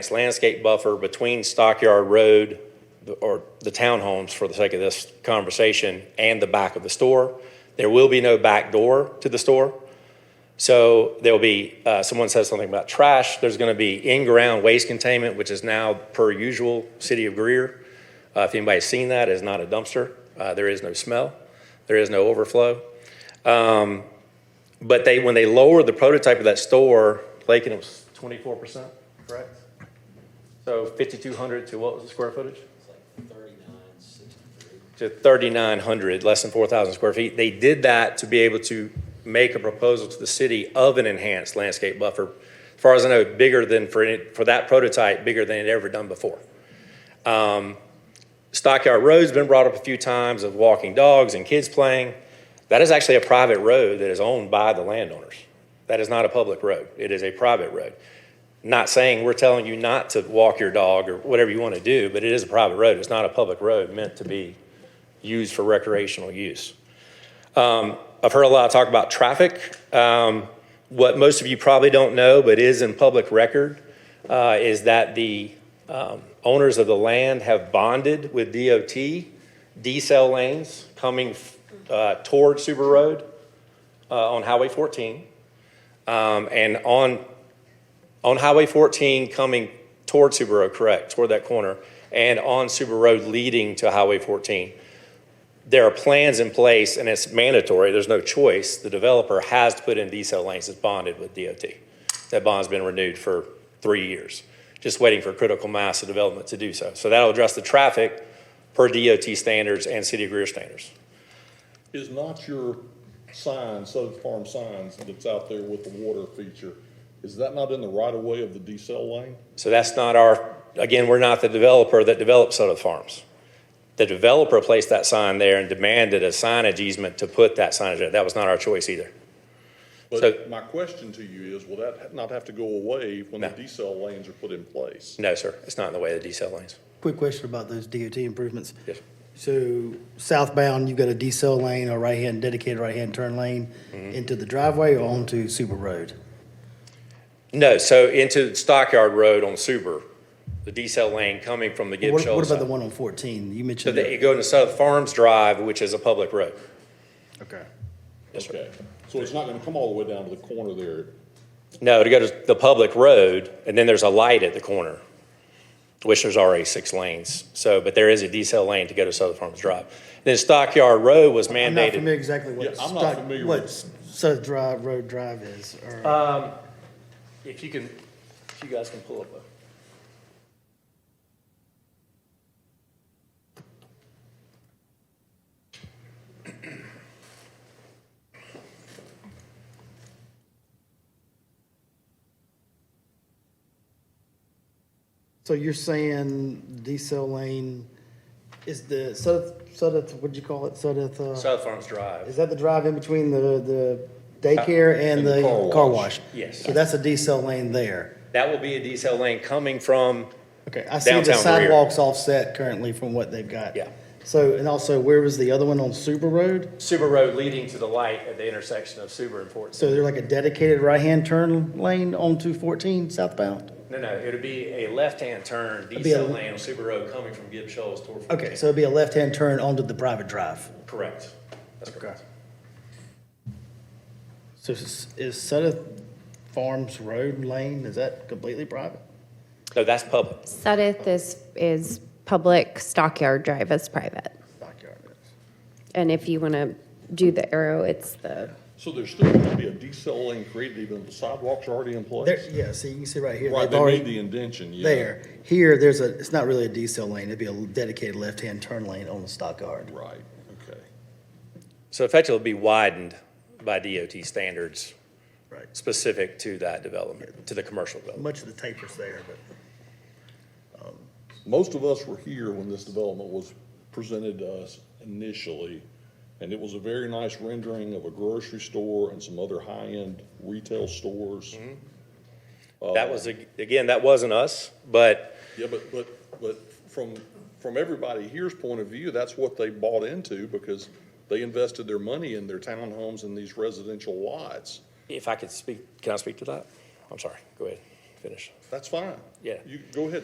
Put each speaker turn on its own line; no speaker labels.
landscape buffer between Stockyard Road, the- or the townhomes for the sake of this conversation, and the back of the store. There will be no back door to the store. So there'll be, uh, someone said something about trash, there's going to be in-ground waste containment, which is now per usual, City of Greer. Uh, If anybody's seen that, it's not a dumpster. Uh, There is no smell. There is no overflow. Um, But they, when they lowered the prototype of that store, Lakin, it was 24%, correct? So 5,200 to what was the square footage? to 3,900, less than 4,000 square feet. They did that to be able to make a proposal to the city of an enhanced landscape buffer. As far as I know, bigger than for, any- for that prototype, bigger than it ever done before. Um, Stockyard Road's been brought up a few times of walking dogs and kids playing. That is actually a private road that is owned by the landowners. That is not a public road. It is a private road. Not saying we're telling you not to walk your dog or whatever you want to do, but it is a private road. It's not a public road meant to be used for recreational use. Um, I've heard a lot of talk about traffic. Um, What most of you probably don't know, but is in public record, uh, is that the um, owners of the land have bonded with DOT, D-cell lanes coming uh, toward Super Road uh, on Highway 14. Um, And on on Highway 14 coming toward Subaru, Road, correct, toward that corner, and on Subaru Road leading to Highway 14. There are plans in place, and it's mandatory, there's no choice. The developer has to put in diesel lanes that's bonded with DOT. That bond's been renewed for three years, just waiting for critical mass of development to do so. So that'll address the traffic per DOT standards and City of Greer standards.
Is not your sign, Southern Farm signs that's out there with the water feature, is that not in the right of way of the decel lane?
So that's not our, again, we're not the developer that developed Soto Farms. The developer placed that sign there and demanded a signage easement to put that signage there. That was not our choice either. So-
But my question to you is, will that not have to go away when the
No.
decel lanes are put in place?
No, sir, it's not in the way of the decel lanes.
Quick question about those DOT improvements.
Yes, sir.
So southbound, you've got a decel lane, a right-hand dedicated right-hand turn lane into the driveway or onto Super Road?
No, so into Stockyard Road on Suber, the decel lane coming from the Gibb
What what
Shoals.
about the one on 14? You
So
mentioned.
that you go into Soto Farms Drive, which is a public road.
Okay.
Yes, sir.
Okay, so it's not gonna come all the way down to the corner there?
No, to go to the public road, and then there's a light at the corner, which there's already six lanes. So, but there is a decel lane to go to Southern Farms Drive. Then Stockyard Road was
I'm not
mandated.
familiar exactly
Yeah,
what,
I'm not
stock-
familiar
what
with- Uh,
Southern Drive, Road Drive is. or-
If you can, if you guys can pull up a.
So you're saying decel lane is the South, South, what'd you call it? South, uh,
Southern Farms Drive.
is that the drive in between the, the daycare and the car wash?
Yes.
So that's a decel lane there.
That will be a decel lane coming from,
Okay, I see the
Downtown rear.
sidewalks offset currently from what they've got.
Yeah.
So, and also, where was the other one on Super Road?
Suber Road leading to the light at the intersection of Suber and Fort.
So they're like a dedicated right-hand turn lane onto 14 southbound?
No, no, it would be a left-hand turn,
be a-
decel lane on Suber Road coming from Gibb Shoals toward. Fort
Okay, so it'd be a left-hand turn onto the private drive.
Correct. That's correct.
So is is Sutter Farms Road lane, is that completely private?
No, that's public.
Sudeth is, is public, Stockyard Drive is private.
Backyard is.
And if you want to do the arrow, it's the,
So there's still gonna be a decel lane created even if the sidewalks are already in
There,
place?
yeah, see, you can see right here.
Right,
they've
they made
already-
the indention, yeah.
There, here, there's a, it's not really a decel lane, it'd be a dedicated left-hand turn lane on the Stockyard.
Right, okay.
So effectively, it'll be widened by DOT standards
Right.
specific to that development, to the commercial development.
Much of the taper's there, but.
Most of us were here when this development was presented to us initially, and it was a very nice rendering of a grocery store and some other high-end retail stores.
That was, a- again, that wasn't us, but
Yeah, but, but, but from, from everybody here's point of view, that's what they bought into because they invested their money in their townhomes and these residential lots.
if I could speak, can I speak to that? I'm sorry, go ahead. finish.
That's fine.
Yeah.
You, go ahead,